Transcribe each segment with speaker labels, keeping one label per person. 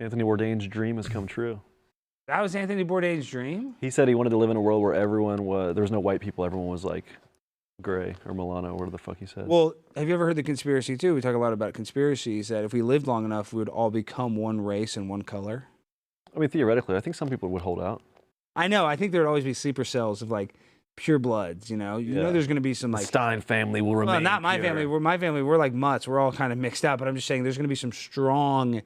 Speaker 1: Anthony Bourdain's dream has come true.
Speaker 2: That was Anthony Bourdain's dream.
Speaker 1: He said he wanted to live in a world where everyone was there was no white people. Everyone was like gray or Milano, whatever the fuck he said.
Speaker 2: Well, have you ever heard the conspiracy too? We talk a lot about conspiracies that if we lived long enough, we would all become one race and one color.
Speaker 1: I mean, theoretically, I think some people would hold out.
Speaker 2: I know. I think there'd always be sleeper cells of like pure bloods. You know, you
Speaker 1: Yeah.
Speaker 2: know, there's going to be some like.
Speaker 1: Stein family will remain.
Speaker 2: Well, not my
Speaker 1: pure.
Speaker 2: family. We're my family. We're like mutts. We're all kind of mixed up. But I'm just saying, there's going to be some strong,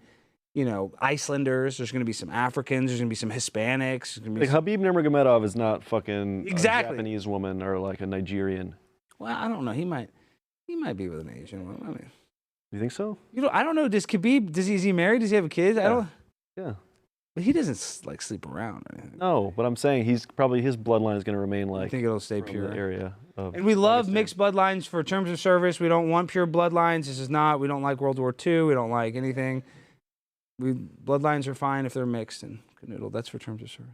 Speaker 2: you know, Icelanders. There's going to be some Africans. There's going to be some Hispanics. There's gonna be
Speaker 1: Like
Speaker 2: some-
Speaker 1: Habib Nurmagomedov is not fucking
Speaker 2: Exactly.
Speaker 1: a Japanese woman or like a Nigerian.
Speaker 2: well, I don't know. He might, he might be with an Asian woman. I mean,
Speaker 1: You think so?
Speaker 2: you know, I don't know. Does Khabib? Does he? Is he married? Does he have a kid? I
Speaker 1: Yeah.
Speaker 2: don't.
Speaker 1: Yeah.
Speaker 2: But he doesn't s- like sleep around or anything.
Speaker 1: No, but I'm saying he's probably his bloodline is going to remain
Speaker 2: I
Speaker 1: like
Speaker 2: think it'll stay
Speaker 1: from the
Speaker 2: pure.
Speaker 1: area of.
Speaker 2: And we love
Speaker 1: Pakistan.
Speaker 2: mixed bloodlines for terms of service. We don't want pure bloodlines. This is not. We don't like World War II. We don't like anything. We bloodlines are fine if they're mixed and canoodle. That's for terms of service.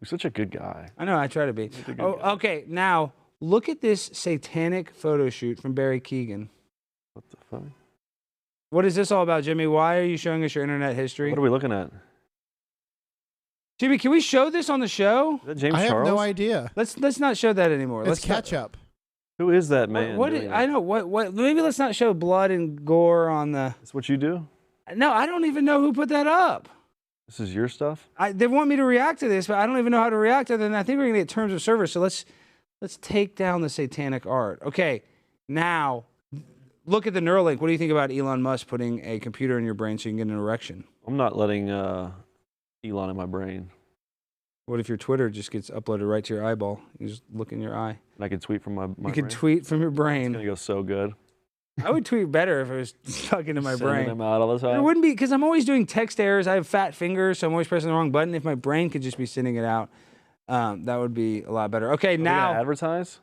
Speaker 1: He's such a good guy.
Speaker 2: I know. I try to be.
Speaker 1: Such a good
Speaker 2: Oh,
Speaker 1: guy.
Speaker 2: okay. Now look at this satanic photo shoot from Barry Keegan.
Speaker 1: What the fuck?
Speaker 2: What is this all about, Jimmy? Why are you showing us your internet history?
Speaker 1: What are we looking at?
Speaker 2: Jimmy, can we show this on the show?
Speaker 1: Is that James
Speaker 3: I have
Speaker 1: Charles?
Speaker 3: no idea.
Speaker 2: Let's let's not show that anymore.
Speaker 3: It's
Speaker 2: let's not-
Speaker 3: ketchup.
Speaker 1: Who is that
Speaker 2: What-
Speaker 1: man?
Speaker 2: what
Speaker 1: doing
Speaker 2: did-
Speaker 1: that?
Speaker 2: I know what what maybe let's not show blood and gore on the
Speaker 1: That's what you do.
Speaker 2: No, I don't even know who put that up.
Speaker 1: This is your stuff.
Speaker 2: I, they want me to react to this, but I don't even know how to react other than I think we're gonna get terms of service. So let's let's take down the satanic art. Okay. Now look at the Neuralink. What do you think about Elon Musk putting a computer in your brain so you can get an erection?
Speaker 1: I'm not letting uh, Elon in my brain,
Speaker 2: What if your Twitter just gets uploaded right to your eyeball? You just look in your eye.
Speaker 1: and I can tweet from my. my
Speaker 2: you can
Speaker 1: brain.
Speaker 2: tweet from your
Speaker 1: It's
Speaker 2: brain.
Speaker 1: gonna go so good.
Speaker 2: I would tweet better if it was stuck into my
Speaker 1: Sending
Speaker 2: brain.
Speaker 1: them out all the
Speaker 2: It
Speaker 1: time.
Speaker 2: wouldn't be because I'm always doing text errors. I have fat fingers, so I'm always pressing the wrong button. If my brain could just be sending it out, um, that would be a lot better. Okay,
Speaker 1: Are they
Speaker 2: now
Speaker 1: gonna advertise.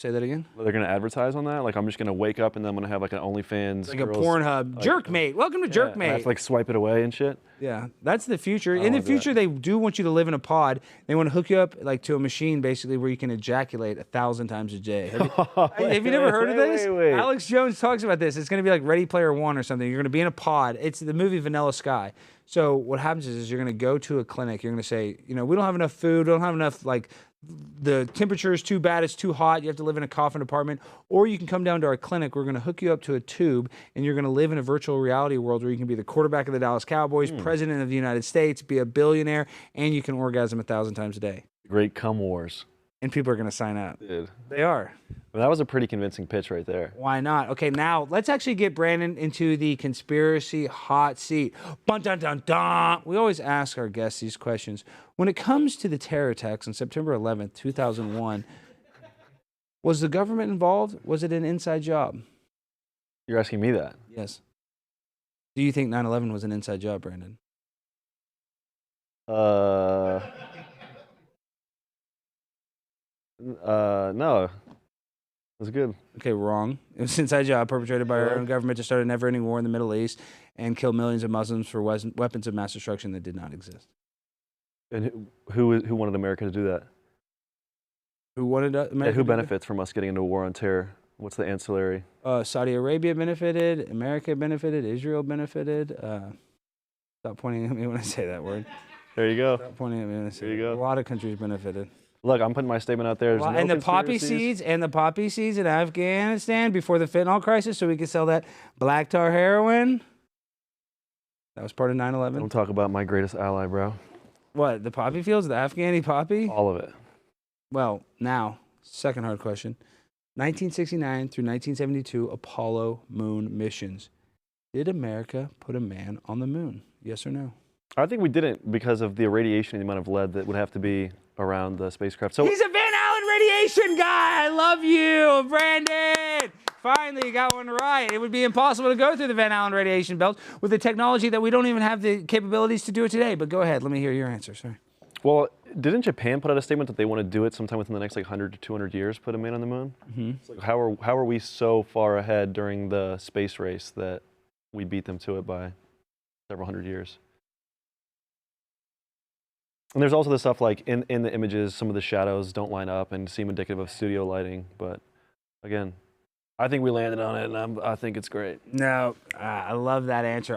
Speaker 2: say that again.
Speaker 1: They're gonna advertise on that. Like I'm just gonna wake up and then I'm gonna have like an OnlyFans.
Speaker 2: Like a
Speaker 1: girls-
Speaker 2: Pornhub
Speaker 1: like- uh,
Speaker 2: jerkmate. Welcome to
Speaker 1: Yeah, and I have
Speaker 2: jerkmate.
Speaker 1: to like swipe it away and shit.
Speaker 2: yeah, that's the future.
Speaker 1: I
Speaker 2: In
Speaker 1: wanna
Speaker 2: the
Speaker 1: do that.
Speaker 2: future, they do want you to live in a pod. They want to hook you up like to a machine, basically, where you can ejaculate a thousand times a day. Have you- Hey, have you never heard of
Speaker 1: Wait,
Speaker 2: this?
Speaker 1: Wait, wait.
Speaker 2: Alex Jones talks about this. It's going to be like Ready Player One or something. You're going to be in a pod. It's the movie Vanilla Sky. So what happens is, is you're going to go to a clinic. You're going to say, you know, we don't have enough food. We don't have enough like the temperature is too bad. It's too hot. You have to live in a coffin apartment, or you can come down to our clinic. We're going to hook you up to a tube, and you're going to live in a virtual reality world where you can be the quarterback of the Dallas Cowboys, president of the United States, be a billionaire, and you can orgasm a thousand times a day.
Speaker 1: Great cum wars,
Speaker 2: And people are going to sign up.
Speaker 1: dude.
Speaker 2: They are.
Speaker 1: Well, that was a pretty convincing pitch right there.
Speaker 2: Why not? Okay, now let's actually get Brandon into the conspiracy hot seat. Bun dun dun dun. We always ask our guests these questions. When it comes to the terror attacks on September 11th, 2001, was the government involved? Was it an inside job?
Speaker 1: You're asking me that.
Speaker 2: Yes. Do you think 9 11 was an inside job, Brandon?
Speaker 1: Uh. Uh, no. It was good.
Speaker 2: Okay, wrong. It was an inside job perpetrated by our
Speaker 1: Really?
Speaker 2: own government to start a never ending war in the Middle East and kill millions of Muslims for wes- weapons of mass destruction that did not exist.
Speaker 1: And who- who who wanted America to do that?
Speaker 2: Who wanted uh,
Speaker 1: Yeah,
Speaker 2: America
Speaker 1: who
Speaker 2: to do that?
Speaker 1: benefits from us getting into a war on terror? What's the ancillary?
Speaker 2: uh, Saudi Arabia benefited, America benefited, Israel benefited. Uh, stop pointing at me when I say that word.
Speaker 1: There you go.
Speaker 2: Stop pointing at me when I say
Speaker 1: There you
Speaker 2: that.
Speaker 1: go.
Speaker 2: A lot of countries benefited.
Speaker 1: Look, I'm putting my statement out there. There's
Speaker 2: Well,
Speaker 1: no
Speaker 2: and the poppy
Speaker 1: conspiracies.
Speaker 2: seeds and the poppy seeds in Afghanistan before the fentanyl crisis, so we could sell that black tar heroin. That was part of 9 11.
Speaker 1: Don't talk about my greatest ally, bro.
Speaker 2: What, the poppy fields, the Afghani poppy?
Speaker 1: All of it.
Speaker 2: Well, now, second hard question. 1969 through 1972 Apollo moon missions. Did America put a man on the moon? Yes or no?
Speaker 1: I think we didn't because of the irradiation and the amount of lead that would have to be around the spacecraft. So
Speaker 2: He's a Van Allen radiation guy. I love you, Brandon. Finally, you got one right. It would be impossible to go through the Van Allen radiation belt with the technology that we don't even have the capabilities to do it today. But go ahead. Let me hear your answer. Sorry.
Speaker 1: Well, didn't Japan put out a statement that they want to do it sometime within the next like 100 to 200 years, put a man on the moon? Mm-hmm. like how are how are we so far ahead during the space race that we beat them to it by several hundred years? And there's also the stuff like in, in the images, some of the shadows don't line up and seem indicative of studio lighting. But again, I think we landed on it, and I'm, I think it's great.
Speaker 2: No, uh, I love that answer.